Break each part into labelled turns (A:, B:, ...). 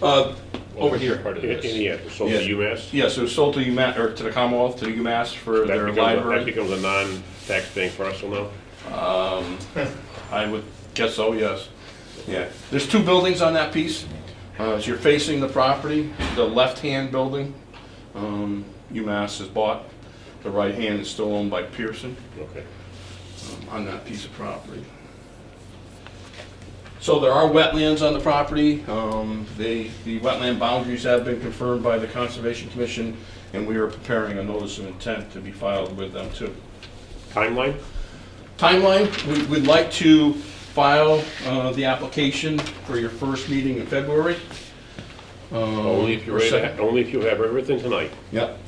A: Uh, over here.
B: Part of this.
C: And yeah, so the
A: Yeah.
C: UMass?
A: Yeah, so it was sold to UMass, or to the Commonwealth, to the UMass for
C: That
A: their
C: becomes, a- that
A: library.
C: becomes a non-taxpaying parcel now?
A: I would guess so, yes. Yeah, there's two buildings on that piece. Uh, as you're facing the property, the left-hand building, um, UMass has bought. The right hand is still owned by Pearson.
C: Okay.
A: on that piece of property. So there are wetlands on the property. Um, They, the wetland boundaries have been confirmed by the Conservation Commission, and we are preparing a notice of intent to be filed with them too.
C: Timeline?
A: Timeline, we would like to file uh, the application for your first meeting in February. Uh,
C: Only if you're ready, to- only if you have everything tonight.
A: Yep.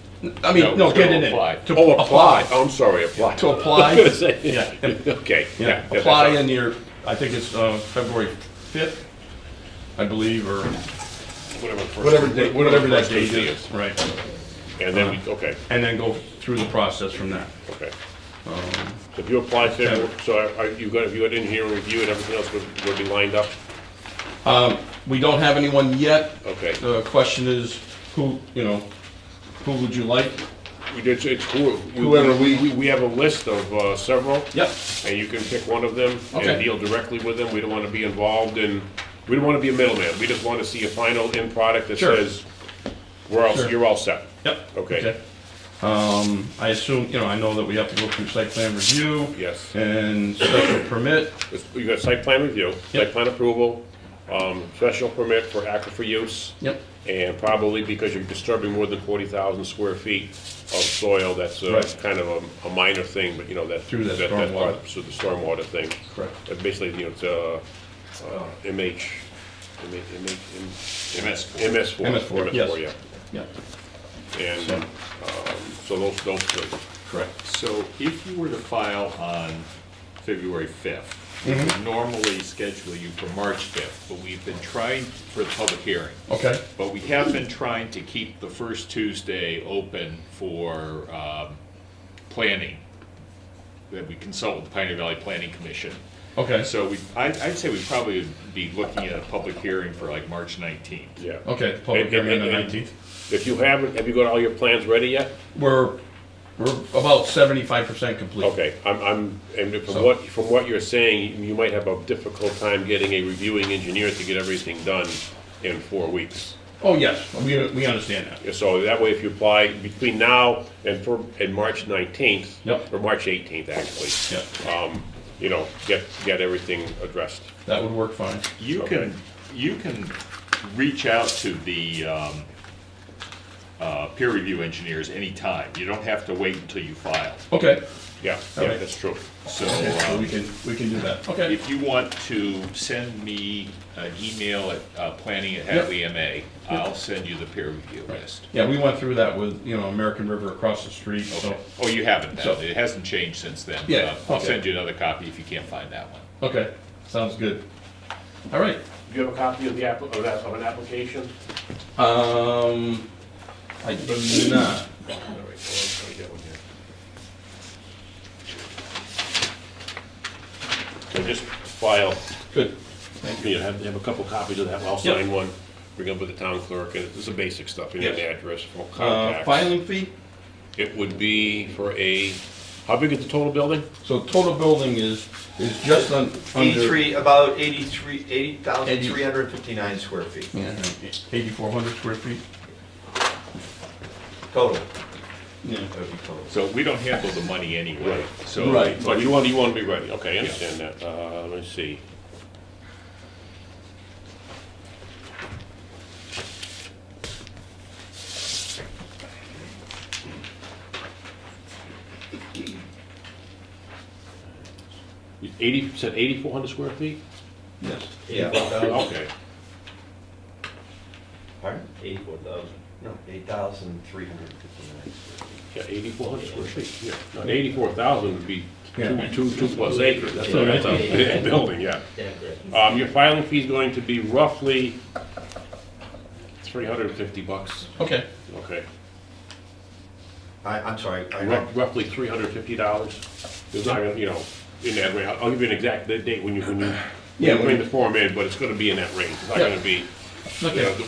A: I mean,
B: No,
A: no,
B: it's
A: get
B: gonna
A: it in.
B: apply.
A: To
C: Oh, apply, Oh, I'm sorry, apply.
A: To apply.
C: I was gonna say,
A: Yeah.
C: okay, yeah.
A: Yeah,
C: that's
A: apply
C: all.
A: in your, I think it's uh, February 5th, I believe, or
C: Whatever the first-
A: whatever date, whatever that
C: first
A: date is.
C: is.
A: Right.
C: And then we, okay,
A: And then go through the process from there.
C: okay.
A: Um,
C: So if you apply, to everyone- so are- are you got, if you got in here and review and everything else would, would be lined up?
A: We don't have anyone yet.
C: Okay.
A: The question is, who, you know, who would you like?
C: We did, it's who.
A: Whoever we-
C: We have a list of uh, several.
A: Yep.
C: And you can pick one of them and
A: Okay.
C: deal directly with them. We don't want to be involved in, we don't want to be a middleman. We just want to see a final end product that
A: Sure.
C: says, we're all,
A: Sure.
C: you're all set.
A: Yep.
C: Okay.
A: Um, I assume, you know, I know that we have to go through site plan review.
C: Yes.
A: And special permit.
C: It's- You got site plan review, site
A: Yep.
C: plan approval, um, special permit for aquifer use.
A: Yep.
C: And probably because you're disturbing more than forty thousand square feet of soil, that's a,
A: Right.
C: kind of a, a minor thing, but you know, that.
A: Through that
C: that's part-
A: stormwater.
C: So the stormwater thing.
A: Correct.
C: But basically, you know, it's, uh, uh, MH, MH, MH. MS. MS four.
A: MS4,
C: yeah.
A: yes. Yep.
C: And,
A: So-
C: um, so those, those, two.
A: Correct.
B: So if you were to file on February 5th, we would normally schedule you for March 5th, but we've been trying for the public hearing.
A: Okay.
B: But we have been trying to keep the first Tuesday open for um, planning, that we consult with the Pioneer Valley Planning Commission.
A: Okay.
B: So we, I- I'd say we probably would be looking at a public hearing for like March 19th.
C: yeah.
A: Okay, Oh, public
C: And- and-
A: hearing on the
C: and-
A: 19th.
C: If you haven't, have you got all your plans ready yet?
A: We're, we're about 75% complete.
C: Okay, I'm, I'm, and from
A: So-
C: what, from what you're saying, you might have a difficult time getting a reviewing engineer to get everything done in four weeks.
A: Oh, yes, we, we understand that.
C: So that way, if you apply between now and for, and March nineteenth.
A: Yep.
C: Or March eighteenth, actually.
A: Yep.
C: Um, you know, get, get everything addressed.
A: That would work fine.
B: You
C: Okay.
B: can, you can reach out to the um, uh, peer review engineers anytime. You don't have to wait until you file.
A: Okay,
C: Yeah,
A: All
C: yeah,
A: right.
C: that's true.
B: So
A: so
B: um,
A: we can, we can do that. Okay.
B: If you want to send me an email at uh, planning at Hadley MA, I'll send you the peer review list.
A: Yeah, we went through that with, you know, American River across the street, so,
B: Okay. Oh, you haven't now.
A: So-
B: It hasn't changed since then.
A: Yeah,
B: Uh, I'll
A: okay.
B: send you another copy if you can't find that one.
A: okay, sounds good. All right.
C: Do you have a copy of the app, of that, of an application?
A: Um, I do not.
C: All right, hold on, let me get one here. So just file
A: Good.
C: Yeah, have, have a couple copies of that, I'll
A: Yep.
C: sign one, bring up with the town clerk, and it's the basic stuff, you know, the
A: Yes.
C: address, full
A: Uh,
C: contacts.
A: filing fee,
C: It would be for a, how big is the total building?
A: so total building is, is just un, under.
D: Eighty-three, about eighty-three, eighty thousand three hundred fifty-nine square feet
A: Eighty-four hundred square feet?
D: total.
A: Yeah.
D: That would be total.
B: So we don't handle the money anyway, so.
A: Right.
C: So you want, you want to be ready, okay, I understand that, uh, let's see. Eighty, said eighty-four hundred square feet?
A: Yes.
D: Yeah. about-
C: Uh, Okay.
D: Pardon? Eighty-four thousand. No, eight thousand three hundred fifty-nine square feet.
C: Yeah, eighty-four hundred square feet, yeah. Not eighty-four thousand would be two,
A: Yeah.
C: two, two plus acres, that's
D: Yeah.
C: a, that's a building, yeah. Um, your filing fee's going to be roughly three hundred and fifty bucks,
A: Okay,
C: okay?
D: I, I'm sorry, I,
C: Ru- Roughly three hundred and fifty dollars. It's not, gonna, you know, in that range, I'll I'll give you an exact date when you, when you, when
A: Yeah,
C: you
A: when
C: bring
A: you-
C: the form in, but it's gonna be in that range. It's not
A: Yeah.
C: gonna be, you know,
A: okay.